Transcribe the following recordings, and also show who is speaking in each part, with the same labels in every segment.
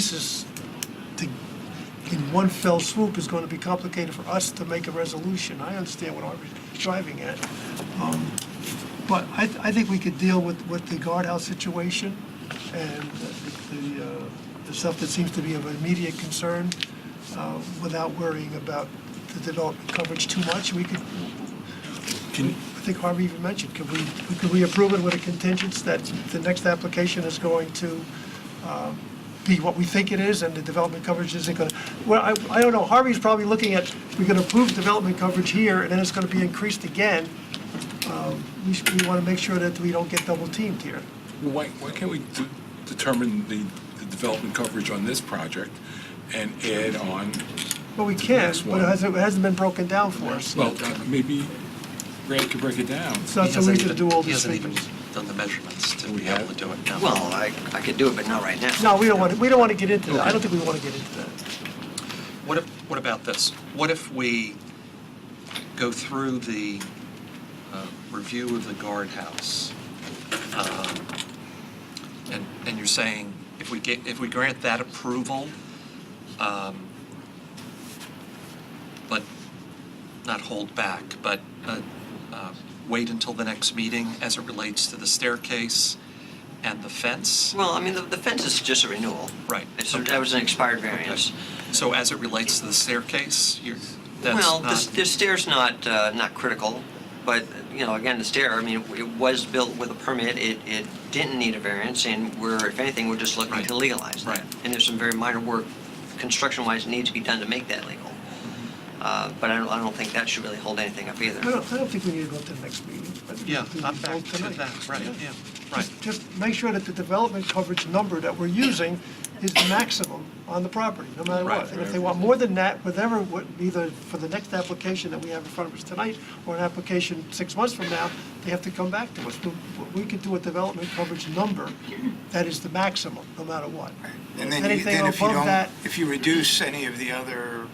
Speaker 1: pieces to, in one fell swoop is going to be complicated for us to make a resolution. I understand what Art's driving at. Um, But I, th- I think we could deal with, with the guardhouse situation and the- the, uh, the stuff that seems to be of immediate concern uh, without worrying about the development coverage too much. We could,
Speaker 2: Can,
Speaker 1: I think Harvey even mentioned, could we, could we approve it with a contingent that the next application is going to um, be what we think it is, and the development coverage isn't going to, well, I, I don't know, Harvey's probably looking at, we're going to approve development coverage here, and then it's going to be increased again. Um, We, should- we want to make sure that we don't get double teamed here.
Speaker 2: why, why can't we de- determine the, the development coverage on this project and add on,
Speaker 1: Well, we can,
Speaker 2: Next
Speaker 1: but
Speaker 2: one.
Speaker 1: it hasn't, it hasn't been broken down for us.
Speaker 2: well, uh, maybe Brad could break it down.
Speaker 1: It's not
Speaker 3: He
Speaker 1: so easy
Speaker 3: hasn't
Speaker 1: to
Speaker 3: even-
Speaker 1: do all
Speaker 3: He
Speaker 1: these
Speaker 3: hasn't even
Speaker 1: figures.
Speaker 3: done the measurements to
Speaker 2: We
Speaker 3: be able to
Speaker 2: have?
Speaker 3: do it. No.
Speaker 4: Well, I, I could do it, but not right now.
Speaker 1: No, we don't want, to. we don't want to get into that, I don't think we want to get into that.
Speaker 3: What if, what about this? What if we go through the uh, review of the guardhouse? um, And, and you're saying, if we get, if we grant that approval, um, but not hold back, but uh, uh, wait until the next meeting as it relates to the staircase and the fence?
Speaker 4: Well, I mean, the, the fence is just a renewal.
Speaker 3: Right.
Speaker 4: It's, that was an expired variance.
Speaker 3: So as it relates to the staircase, you're, that's
Speaker 4: Well,
Speaker 3: not...
Speaker 4: the the stair's not, uh, not critical, but, you know, again, the stair, I mean, it was built with a permit, it, it didn't need a variance, and we're, if anything, we're just looking
Speaker 3: Right.
Speaker 4: to legalize that.
Speaker 3: Right.
Speaker 4: And there's some very minor work, construction-wise, needs to be done to make that legal. Uh, But I don't, I don't think that should really hold anything up either.
Speaker 1: I don't, I don't think we need to go to the next meeting. I think
Speaker 3: Yeah,
Speaker 1: we can
Speaker 3: I'm
Speaker 1: vote
Speaker 3: back to
Speaker 1: tonight.
Speaker 3: that, right,
Speaker 1: Yeah.
Speaker 3: yeah, right.
Speaker 1: Just make sure that the development coverage number that we're using is maximum on the property, no matter
Speaker 3: Right.
Speaker 1: what. And if they want more than that, whatever, what- either for the next application that we have in front of us tonight, or an application six months from now, they have to come back to us. We- We could do a development coverage number that is the maximum, no matter what.
Speaker 5: And then, you-
Speaker 1: Anything
Speaker 5: then if you
Speaker 1: above
Speaker 5: don't,
Speaker 1: that-
Speaker 5: if you reduce any of the other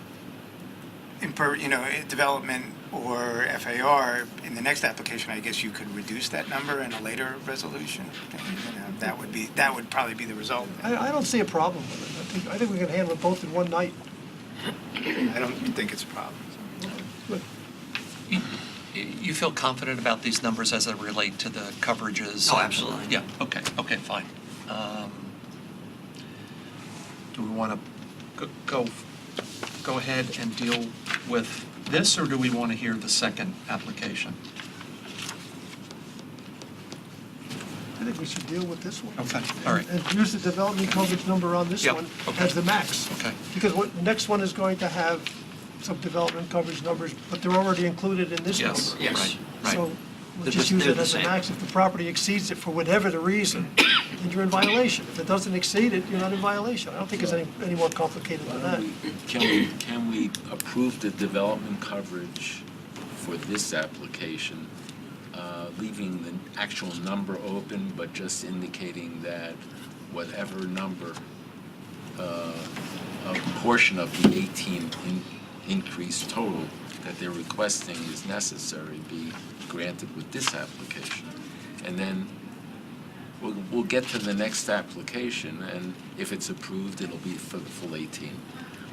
Speaker 5: imper, you know, eh, development or FAR, in the next application, I guess you could reduce that number in a later resolution. You know, That would be, that would probably be the result.
Speaker 1: I, I don't see a problem with it. I think, I think we can handle it both in one night.
Speaker 5: I don't think it's a problem.
Speaker 3: You feel confident about these numbers as they relate to the coverages?
Speaker 4: Oh, absolutely.
Speaker 3: Yeah, okay, okay, fine. Um, Do we want to go, go ahead and deal with this, or do we want to hear the second application?
Speaker 1: I think we should deal with this one.
Speaker 3: Okay, all right.
Speaker 1: And use the development coverage number on this
Speaker 3: Yep,
Speaker 1: one
Speaker 3: okay.
Speaker 1: as the max.
Speaker 3: Okay.
Speaker 1: Because what, the next one is going to have some development coverage numbers, but they're already included in this number.
Speaker 3: Yes,
Speaker 4: Yes.
Speaker 3: right, right.
Speaker 1: So we'll
Speaker 4: They're
Speaker 1: just
Speaker 4: just-
Speaker 1: use
Speaker 4: they're
Speaker 1: it
Speaker 4: the
Speaker 1: as a
Speaker 4: same.
Speaker 1: max. If the property exceeds it for whatever the reason, then you're in violation. If it doesn't exceed it, you're not in violation. I don't think it's any, any more complicated than that.
Speaker 6: Can we, can we approve the development coverage for this application, uh, leaving the actual number open, but just indicating that whatever number, uh, a portion of the 18 in- increase total that they're requesting is necessary be granted with this application? And then we'll, we'll get to the next application, and if it's approved, it'll be for the full 18.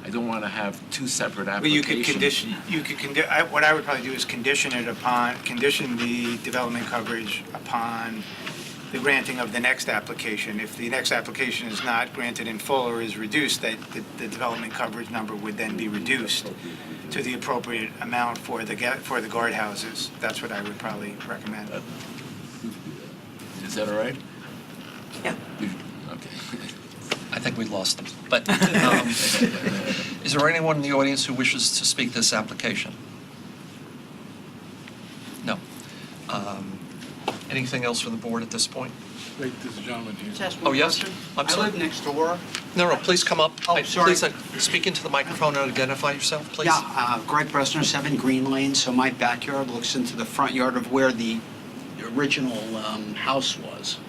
Speaker 6: I don't want to have two separate
Speaker 5: Well, you could
Speaker 6: applications.
Speaker 5: condition, you could, condi- I- what I would probably do is condition it upon, condition the development coverage upon the granting of the next application. If the next application is not granted in full or is reduced, that the- the development coverage number would then be reduced to the appropriate amount for the, ga- for the guardhouses. That's what I would probably recommend.
Speaker 6: Is that all right?
Speaker 4: Yeah.
Speaker 6: You- Okay.
Speaker 3: I think we lost them, but um, is there anyone in the audience who wishes to speak this application? No. Um, Anything else from the board at this point?
Speaker 2: Wait, there's a gentleman here.
Speaker 7: Just ask
Speaker 3: Oh,
Speaker 7: one
Speaker 3: yes?
Speaker 7: question.
Speaker 3: I'm sorry.
Speaker 7: I live next door.
Speaker 3: No, no, please come up.
Speaker 7: Oh,
Speaker 3: I-
Speaker 7: sorry.
Speaker 3: Please uh, speak into the microphone and identify yourself, please.
Speaker 7: Yeah, uh, Greg Bresner, 7 Green Lane, so my backyard looks into the front yard of where the original um, house was.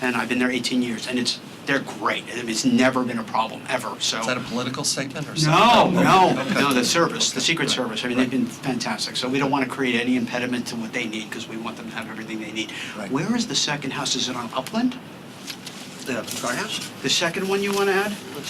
Speaker 7: And I've been there 18 years, and it's, they're great, and it's never been a problem, ever, so.
Speaker 3: Is that a political statement or
Speaker 7: No,
Speaker 3: something?
Speaker 7: no,
Speaker 3: Okay.
Speaker 7: no, the service, the Secret
Speaker 3: Right,
Speaker 7: Service, I mean,
Speaker 3: right.
Speaker 7: they've been fantastic, so we don't want to create any impediment to what they need, because we want them to have everything they need.
Speaker 5: Right.
Speaker 7: Where is the second house, is it on Upland?
Speaker 4: The guardhouse?
Speaker 7: The second one you want to add?